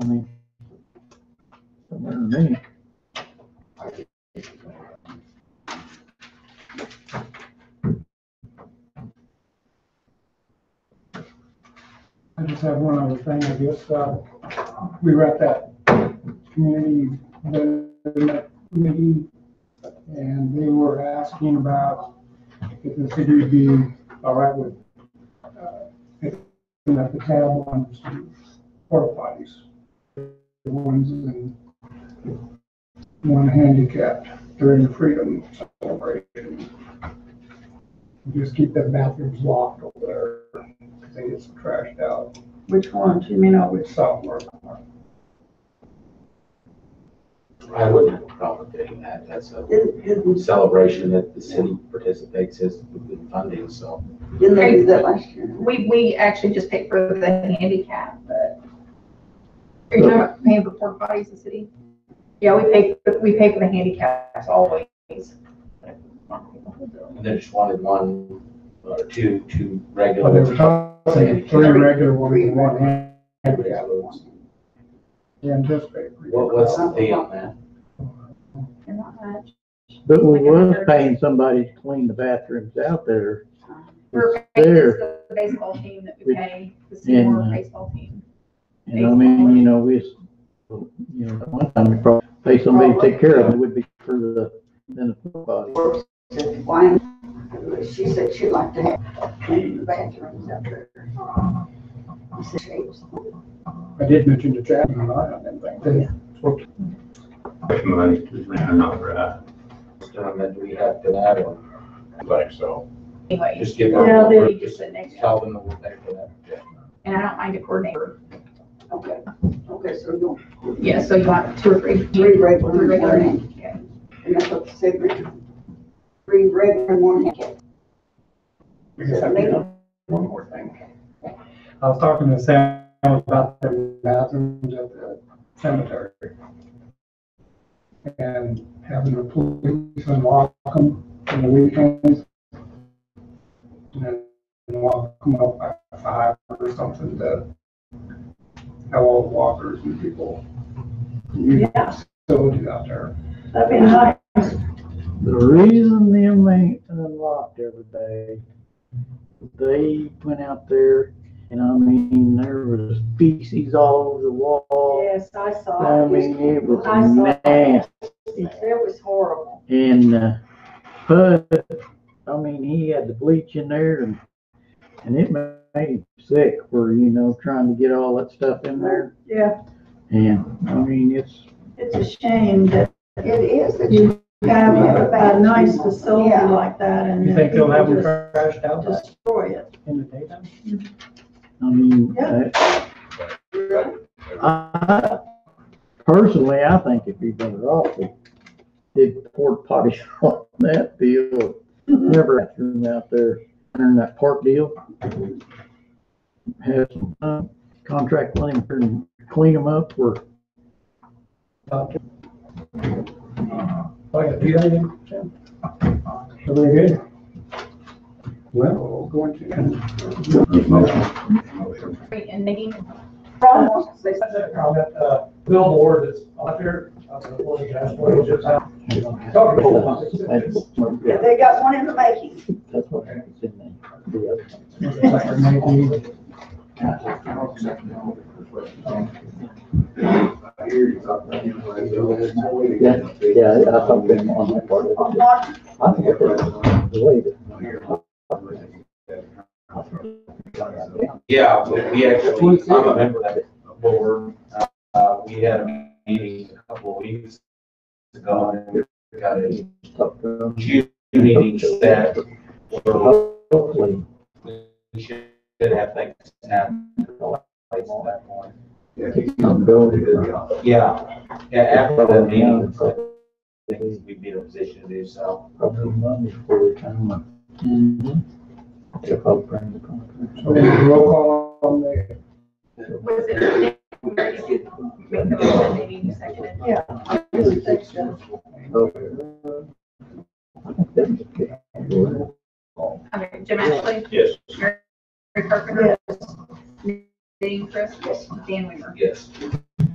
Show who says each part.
Speaker 1: I mean, doesn't matter to me.
Speaker 2: I just have one other thing, I guess, uh, we were at that community development committee, and they were asking about if the city would be all right with, uh, picking up the tab on porta potties. The ones in, one handicapped during the freedom celebration. Just keep the bathrooms locked over there, 'cause they get some trashed out.
Speaker 3: Which ones? You mean over,
Speaker 2: Which sophomore?
Speaker 4: I wouldn't have a problem doing that. That's a
Speaker 5: Didn't, didn't,
Speaker 4: celebration that the city participates in with funding, so.
Speaker 5: didn't they do that last year?
Speaker 6: We, we actually just paid for the handicap, but. Are you talking about paying for porta potties in the city? Yeah, we pay, we pay for the handicaps always.
Speaker 4: And they just wanted one or two, two regular.
Speaker 2: Well, they were talking three regular ones and one hand.
Speaker 4: Yeah, we want-
Speaker 2: And just paper.
Speaker 4: What, what's the fee on that?
Speaker 6: They're not much.
Speaker 1: But we were paying somebody to clean the bathrooms out there.
Speaker 6: We're
Speaker 5: uh,
Speaker 1: It's
Speaker 6: paying
Speaker 1: there.
Speaker 6: the baseball team that we pay, the senior baseball team.
Speaker 1: And I mean, you know, we, s- you know, one time we probably pay somebody to take care of it, it would be for the, then the pool body.
Speaker 5: Said, Why? She said she'd like to have clean the bathrooms out there. I said, "She was
Speaker 2: I did mention to Chad and I, I didn't think that.
Speaker 7: money, man, not right.
Speaker 4: Um, and we have to add one.
Speaker 7: Like so.
Speaker 6: Anyway,
Speaker 4: Just give them.
Speaker 6: no, then you just sit next to them.
Speaker 4: Tell them that we'll pay for that.
Speaker 6: And I don't mind a coordinator.
Speaker 5: Okay, okay, so you
Speaker 6: Yeah, so you want two or three.
Speaker 5: three regular and one
Speaker 6: Regular.
Speaker 5: handicap. And that's what they said, three- three regular and one handicap.
Speaker 2: We just have to do One more thing. I was talking to Sam about the bathrooms at the cemetery. And having the police unlock them on the weekends. And then lock them up by five or something to have all the walkers and people. use the
Speaker 3: Yeah.
Speaker 2: Facilities out there.
Speaker 3: that'd be nice.
Speaker 1: The reason them ain't unlocked every day, they went out there and I mean, there was feces all over the wall.
Speaker 3: Yes, I saw
Speaker 1: I
Speaker 3: it.
Speaker 1: mean, it was
Speaker 3: I saw it.
Speaker 1: nasty.
Speaker 3: It was horrible.
Speaker 1: And, uh, but, I mean, he had the bleach in there and, and it ma- made him sick for, you know, trying to get all that stuff in there.
Speaker 3: Yeah,
Speaker 1: And, I mean, it's,
Speaker 3: it's a shame that
Speaker 5: It is. that
Speaker 3: You
Speaker 5: you
Speaker 3: have a, a nice
Speaker 5: bathroom.
Speaker 3: facility
Speaker 5: Yeah.
Speaker 3: like that and
Speaker 2: You
Speaker 3: then
Speaker 2: think they'll
Speaker 3: people
Speaker 2: have them
Speaker 3: just
Speaker 2: trashed out by-
Speaker 3: destroy it.
Speaker 2: in the daytime?
Speaker 1: I mean,
Speaker 3: Yeah.
Speaker 1: I- Um, I, personally, I think it'd be better off if did port potty on that deal. Never had room out there, during that park deal. Have some, uh, contract claim and clean them up or
Speaker 2: Okay. Oh, yeah, do you have anything, Jim? Everything good? Well, we'll go into.
Speaker 6: And Nikki,
Speaker 5: Ron wants to say something.
Speaker 8: comment, uh, billboard that's out there, uh, the one that's going just out. Talking about it.
Speaker 1: That's
Speaker 5: Yeah, They got one in the making.
Speaker 1: that's what happens in the- the other. Yeah, yeah, I thought them on that part.
Speaker 5: On March
Speaker 1: I think that's the way that-
Speaker 4: Yeah, we- we actually, I'm a member of that board. Uh, we had a meeting a couple of weeks ago and we got a
Speaker 1: Talk to them.
Speaker 4: June meeting set for,
Speaker 1: Hopefully,
Speaker 4: we should have things happen. that point.
Speaker 1: it's not going to-
Speaker 4: Yeah, yeah, after that meeting, I think we'd be in a position to do so.
Speaker 1: Probably money for the town. To help bring the contract.
Speaker 2: So roll call on the,
Speaker 6: was it? Nikki? Make the motion, Nikki, you seconded it. Okay, Jim Ashley,
Speaker 7: Yes.
Speaker 6: Mary Carpenter, Dean Chris, Dan Weaver.
Speaker 4: Yes.